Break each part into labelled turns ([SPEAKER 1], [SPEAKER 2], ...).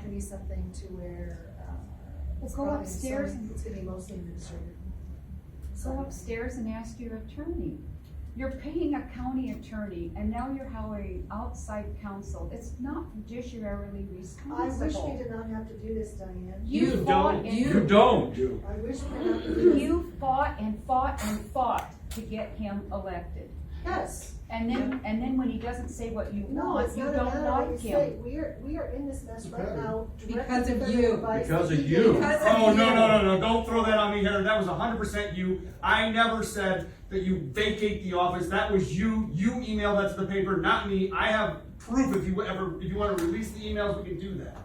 [SPEAKER 1] to be something to where, uh. it's
[SPEAKER 2] Well, go
[SPEAKER 1] probably
[SPEAKER 2] upstairs
[SPEAKER 1] some-
[SPEAKER 2] and-
[SPEAKER 1] It's gonna be mostly administrative.
[SPEAKER 2] Go
[SPEAKER 1] So
[SPEAKER 2] upstairs and ask your attorney. You're paying a county attorney and now you're hiring outside counsel. It's not judiciarily
[SPEAKER 1] I wish we
[SPEAKER 2] responsible.
[SPEAKER 1] did not have to do this, Diane.
[SPEAKER 2] You fought
[SPEAKER 3] don't.
[SPEAKER 2] and
[SPEAKER 3] You don't.
[SPEAKER 1] I wish we did not. do this.
[SPEAKER 2] You fought and fought and fought to get him elected.
[SPEAKER 1] Yes.
[SPEAKER 2] And then, and then when he doesn't say what you
[SPEAKER 1] No,
[SPEAKER 2] want,
[SPEAKER 1] it's
[SPEAKER 2] you
[SPEAKER 1] not a
[SPEAKER 2] don't
[SPEAKER 1] matter of
[SPEAKER 2] like
[SPEAKER 1] what you say.
[SPEAKER 2] him.
[SPEAKER 1] We are, we are in this mess right
[SPEAKER 4] Because-
[SPEAKER 1] now. directly
[SPEAKER 5] Because of you.
[SPEAKER 1] advice
[SPEAKER 3] Because of
[SPEAKER 1] he
[SPEAKER 3] you.
[SPEAKER 1] gave us.
[SPEAKER 5] Because of
[SPEAKER 3] Oh, no,
[SPEAKER 5] you.
[SPEAKER 3] no, no, no, don't throw that on me, Heather, that was hundred percent you. I never said that you vacate the office, that was you, you emailed that to the paper, not me. I have proof if you ever, if you wanna release the emails, we can do that.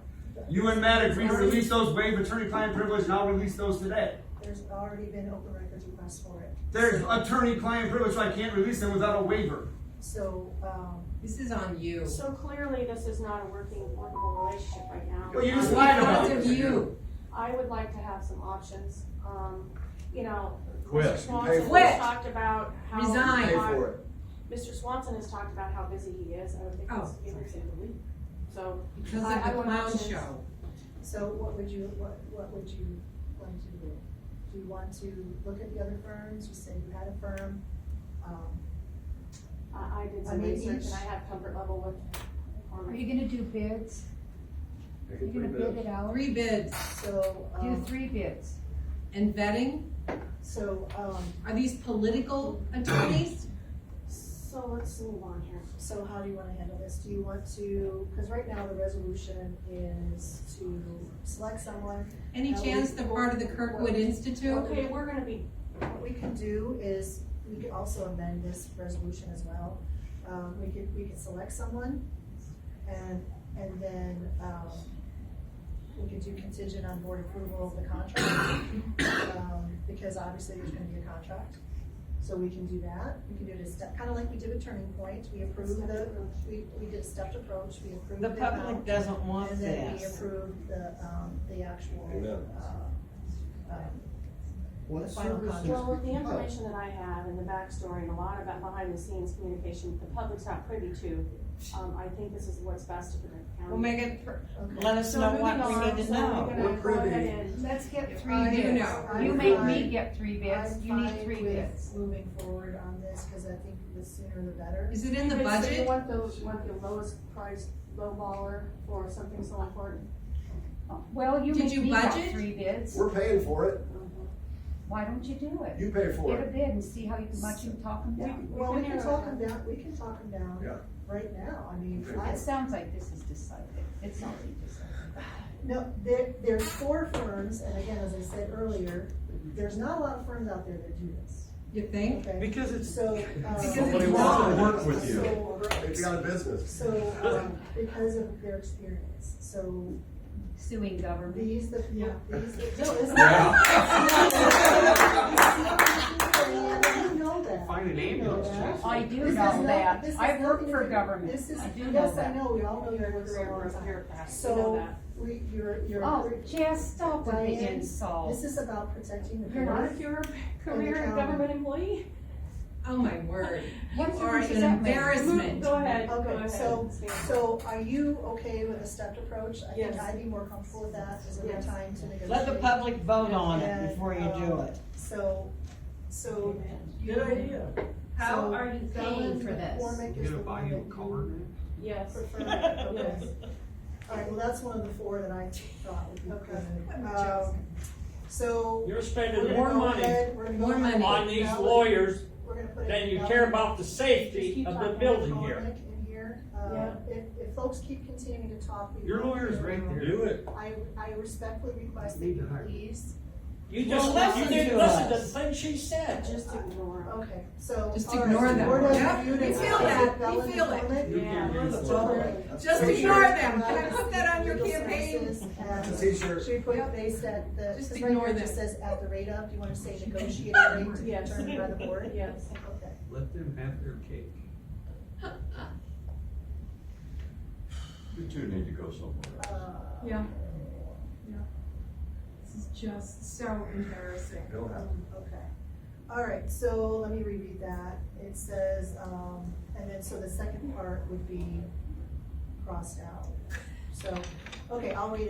[SPEAKER 3] You and Matt agreed to release those, waive attorney-client privilege, and I'll release those today.
[SPEAKER 1] There's already been open records requests for it.
[SPEAKER 3] There's attorney-client privilege, so I can't release them without a waiver.
[SPEAKER 1] So, um,
[SPEAKER 5] This is on you.
[SPEAKER 6] So clearly, this is not a working, workable relationship right now. Um,
[SPEAKER 3] Well, you just lied about
[SPEAKER 5] Because
[SPEAKER 3] it.
[SPEAKER 5] of you.
[SPEAKER 6] I would like to have some options, um, you know.
[SPEAKER 3] Quit.
[SPEAKER 6] Mr. Swanson
[SPEAKER 4] Pay
[SPEAKER 5] for it.
[SPEAKER 6] has talked about how.
[SPEAKER 5] Resign.
[SPEAKER 4] Pay for it.
[SPEAKER 6] Mr. Swanson has talked about how busy he is, I would think
[SPEAKER 5] Oh.
[SPEAKER 6] he's every single week, so.
[SPEAKER 5] Because
[SPEAKER 6] I-
[SPEAKER 5] of
[SPEAKER 6] I
[SPEAKER 5] the
[SPEAKER 6] want
[SPEAKER 5] clown
[SPEAKER 6] options.
[SPEAKER 5] show.
[SPEAKER 1] so what would you, what, what would you want to do? Do you want to look at the other firms? You said you had a firm. Um,
[SPEAKER 6] I, I did some
[SPEAKER 1] I mean,
[SPEAKER 6] research
[SPEAKER 1] each-
[SPEAKER 6] and I have comfort level with. um,
[SPEAKER 2] Are
[SPEAKER 6] Cormac.
[SPEAKER 2] you gonna do bids?
[SPEAKER 4] Make
[SPEAKER 2] You're
[SPEAKER 4] it
[SPEAKER 2] gonna
[SPEAKER 4] three
[SPEAKER 2] bid
[SPEAKER 4] bids.
[SPEAKER 2] it out?
[SPEAKER 5] Three bids
[SPEAKER 1] so,
[SPEAKER 2] Do
[SPEAKER 1] um,
[SPEAKER 2] three bids.
[SPEAKER 5] and vetting.
[SPEAKER 1] so, um,
[SPEAKER 5] Are these political attorneys?
[SPEAKER 6] So let's move on here.
[SPEAKER 1] so how do you wanna handle this? Do you want to, cause right now the resolution is to select someone
[SPEAKER 5] Any
[SPEAKER 1] No,
[SPEAKER 5] chance
[SPEAKER 1] we-
[SPEAKER 5] they're part of the Kirkwood Institute?
[SPEAKER 6] Okay, we're gonna be,
[SPEAKER 1] What we can do is, we could also amend this resolution as well. Um, we could, we could select someone and, and then, um, we could do contingent on board approval of the contract. um, Because obviously there's gonna be a contract, so we can do that. We can do it a step, kinda like we did with Turning Point, we approved the, we, we did a stepped approach, we approved the
[SPEAKER 7] The
[SPEAKER 1] amount,
[SPEAKER 7] public doesn't want
[SPEAKER 1] And then we
[SPEAKER 7] this.
[SPEAKER 1] approved the, um, the actual,
[SPEAKER 4] Amen.
[SPEAKER 1] uh, um,
[SPEAKER 4] What
[SPEAKER 1] Final
[SPEAKER 4] services?
[SPEAKER 1] contract.
[SPEAKER 6] well, with the information that I have and the backstory and a lot about behind the scenes communication, that the public's not privy to, um, I think this is what's best for the county.
[SPEAKER 7] Well, make it, pr-
[SPEAKER 1] okay.
[SPEAKER 7] let us
[SPEAKER 6] So
[SPEAKER 7] know
[SPEAKER 6] moving
[SPEAKER 7] what we
[SPEAKER 6] on,
[SPEAKER 7] need to
[SPEAKER 6] so
[SPEAKER 7] know.
[SPEAKER 6] we're gonna
[SPEAKER 4] We're privy.
[SPEAKER 6] go ahead and-
[SPEAKER 2] Let's get
[SPEAKER 1] I-
[SPEAKER 2] three
[SPEAKER 5] You
[SPEAKER 2] bids.
[SPEAKER 5] know.
[SPEAKER 1] I'm
[SPEAKER 2] You make me
[SPEAKER 1] fine-
[SPEAKER 2] get three bids,
[SPEAKER 1] I'm
[SPEAKER 2] you need
[SPEAKER 1] fine
[SPEAKER 2] three
[SPEAKER 1] with
[SPEAKER 2] bids.
[SPEAKER 1] Moving forward on this, cause I think the sooner the better.
[SPEAKER 5] Is it in the
[SPEAKER 6] Wait, so you
[SPEAKER 5] budget?
[SPEAKER 6] want the, want the lowest priced lowballer for something so important?
[SPEAKER 2] Well, you
[SPEAKER 5] Did
[SPEAKER 2] make
[SPEAKER 5] you
[SPEAKER 2] me get
[SPEAKER 5] budget?
[SPEAKER 2] three bids,
[SPEAKER 4] We're paying for it,
[SPEAKER 2] why don't you do it?
[SPEAKER 4] you pay for
[SPEAKER 2] Get a
[SPEAKER 4] it.
[SPEAKER 2] bid and see how you- much you can talk them down.
[SPEAKER 1] Well, we can
[SPEAKER 6] narrow
[SPEAKER 1] talk
[SPEAKER 6] it
[SPEAKER 1] them down, we can talk them
[SPEAKER 4] Yeah.
[SPEAKER 1] down right now, I mean,
[SPEAKER 4] Okay.
[SPEAKER 1] I,
[SPEAKER 2] It sounds like this is decided, it's already decided.
[SPEAKER 1] no, there, there's four firms, and again, as I said earlier, there's not a lot of firms out there that do this,
[SPEAKER 5] You think?
[SPEAKER 1] okay?
[SPEAKER 3] Because
[SPEAKER 1] So, um.
[SPEAKER 5] Because
[SPEAKER 4] Nobody
[SPEAKER 5] it's
[SPEAKER 4] wants to
[SPEAKER 5] wrong.
[SPEAKER 4] work with you.
[SPEAKER 1] So,
[SPEAKER 4] It's out of business.
[SPEAKER 1] so, um, because of their experience, so
[SPEAKER 2] Suing government.
[SPEAKER 1] these, the, these, no, this is. You know that.
[SPEAKER 3] Find an
[SPEAKER 1] You know
[SPEAKER 3] ambulance,
[SPEAKER 1] that.
[SPEAKER 3] Jason.
[SPEAKER 2] I do
[SPEAKER 1] This is
[SPEAKER 2] know
[SPEAKER 1] not-
[SPEAKER 2] that,
[SPEAKER 1] this is
[SPEAKER 2] I've worked
[SPEAKER 1] nothing
[SPEAKER 2] for
[SPEAKER 1] to do-
[SPEAKER 2] government,
[SPEAKER 1] This is,
[SPEAKER 2] I do know
[SPEAKER 1] yes, I
[SPEAKER 2] that.
[SPEAKER 1] know, we all know
[SPEAKER 6] You're
[SPEAKER 1] your
[SPEAKER 6] a
[SPEAKER 1] work
[SPEAKER 6] career or a bureaucrat, you know
[SPEAKER 1] So,
[SPEAKER 6] that.
[SPEAKER 1] we, you're, you're.
[SPEAKER 2] Oh, just stop with the
[SPEAKER 1] Diane,
[SPEAKER 2] insult.
[SPEAKER 1] This is about protecting the.
[SPEAKER 6] You're not a
[SPEAKER 1] parents.
[SPEAKER 6] pure
[SPEAKER 1] And
[SPEAKER 6] career
[SPEAKER 1] the
[SPEAKER 6] government employee?
[SPEAKER 5] Oh, my word. You
[SPEAKER 2] What
[SPEAKER 5] are
[SPEAKER 2] difference
[SPEAKER 5] an
[SPEAKER 2] does that make?
[SPEAKER 5] embarrassment.
[SPEAKER 6] Go ahead, go
[SPEAKER 1] Okay,
[SPEAKER 6] ahead.
[SPEAKER 1] so,
[SPEAKER 6] Stan.
[SPEAKER 1] so are you okay with a stepped approach? I think
[SPEAKER 6] Yes.
[SPEAKER 1] I'd be more comfortable with that, is there
[SPEAKER 6] Yes.
[SPEAKER 1] time to negotiate?
[SPEAKER 7] Let the public vote on
[SPEAKER 1] And,
[SPEAKER 7] it before you do
[SPEAKER 1] um,
[SPEAKER 7] it.
[SPEAKER 1] So, so.
[SPEAKER 7] Good idea.
[SPEAKER 1] so
[SPEAKER 5] How are you
[SPEAKER 1] Ellen
[SPEAKER 5] paying for this?
[SPEAKER 1] McCormick
[SPEAKER 3] You
[SPEAKER 1] is
[SPEAKER 3] gonna
[SPEAKER 1] the
[SPEAKER 3] buy
[SPEAKER 1] one
[SPEAKER 3] you a
[SPEAKER 1] that you
[SPEAKER 3] car, man?
[SPEAKER 6] Yes.
[SPEAKER 1] prefer. Okay. All right, well, that's one of the four that I thought would be good. Um, So.
[SPEAKER 8] You're
[SPEAKER 1] we're
[SPEAKER 8] spending
[SPEAKER 1] gonna
[SPEAKER 8] more
[SPEAKER 1] go
[SPEAKER 8] money
[SPEAKER 1] ahead, we're gonna go
[SPEAKER 5] More
[SPEAKER 1] ahead and
[SPEAKER 5] money.
[SPEAKER 8] on these
[SPEAKER 1] ballot-
[SPEAKER 8] lawyers
[SPEAKER 1] we're gonna put it
[SPEAKER 8] than you
[SPEAKER 1] ballot.
[SPEAKER 8] care about the
[SPEAKER 6] Just
[SPEAKER 8] safety
[SPEAKER 6] keep
[SPEAKER 8] of the
[SPEAKER 6] talking.
[SPEAKER 8] building here.
[SPEAKER 1] McCormick in here. Uh,
[SPEAKER 6] Yeah.
[SPEAKER 1] If, if folks keep continuing to talk. we
[SPEAKER 3] Your
[SPEAKER 1] will-
[SPEAKER 3] lawyer's right there.
[SPEAKER 4] Do it.
[SPEAKER 1] I, I respectfully request that
[SPEAKER 3] Need to
[SPEAKER 1] you
[SPEAKER 3] hire.
[SPEAKER 1] please,
[SPEAKER 8] You
[SPEAKER 7] Well,
[SPEAKER 8] just,
[SPEAKER 7] listen
[SPEAKER 8] you didn't
[SPEAKER 7] to
[SPEAKER 8] listen to the
[SPEAKER 7] us.
[SPEAKER 8] thing she said.
[SPEAKER 6] Just ignore him.
[SPEAKER 1] okay, so.
[SPEAKER 5] Just
[SPEAKER 1] all right,
[SPEAKER 5] ignore
[SPEAKER 1] so
[SPEAKER 5] them.
[SPEAKER 1] Board of
[SPEAKER 5] Yep,
[SPEAKER 1] Review
[SPEAKER 5] we
[SPEAKER 1] to
[SPEAKER 5] feel
[SPEAKER 1] accept
[SPEAKER 5] that, we
[SPEAKER 1] ballot
[SPEAKER 5] feel it.
[SPEAKER 1] McCormick.
[SPEAKER 6] Yeah.
[SPEAKER 5] Just
[SPEAKER 4] Make
[SPEAKER 5] ignore
[SPEAKER 4] sure-
[SPEAKER 5] them. Can I put that on your
[SPEAKER 1] uh, Legal
[SPEAKER 5] campaign?
[SPEAKER 1] services at-
[SPEAKER 4] It's a t-shirt.
[SPEAKER 1] Should we put, they said, the,
[SPEAKER 5] Just
[SPEAKER 1] because right here
[SPEAKER 5] ignore
[SPEAKER 1] it just
[SPEAKER 5] them.
[SPEAKER 1] says at the rate of, do you wanna say negotiated rate to be
[SPEAKER 6] Yes.
[SPEAKER 1] determined by the board?
[SPEAKER 6] Yes.
[SPEAKER 1] Okay,
[SPEAKER 3] Let them have their cake.
[SPEAKER 4] You two need to go somewhere.
[SPEAKER 1] uh,
[SPEAKER 6] Yeah.
[SPEAKER 5] This is just so embarrassing.
[SPEAKER 4] Don't have.
[SPEAKER 1] okay. All right, so let me reread that. It says, um, and then, so the second part would be crossed out. So, okay, I'll read it.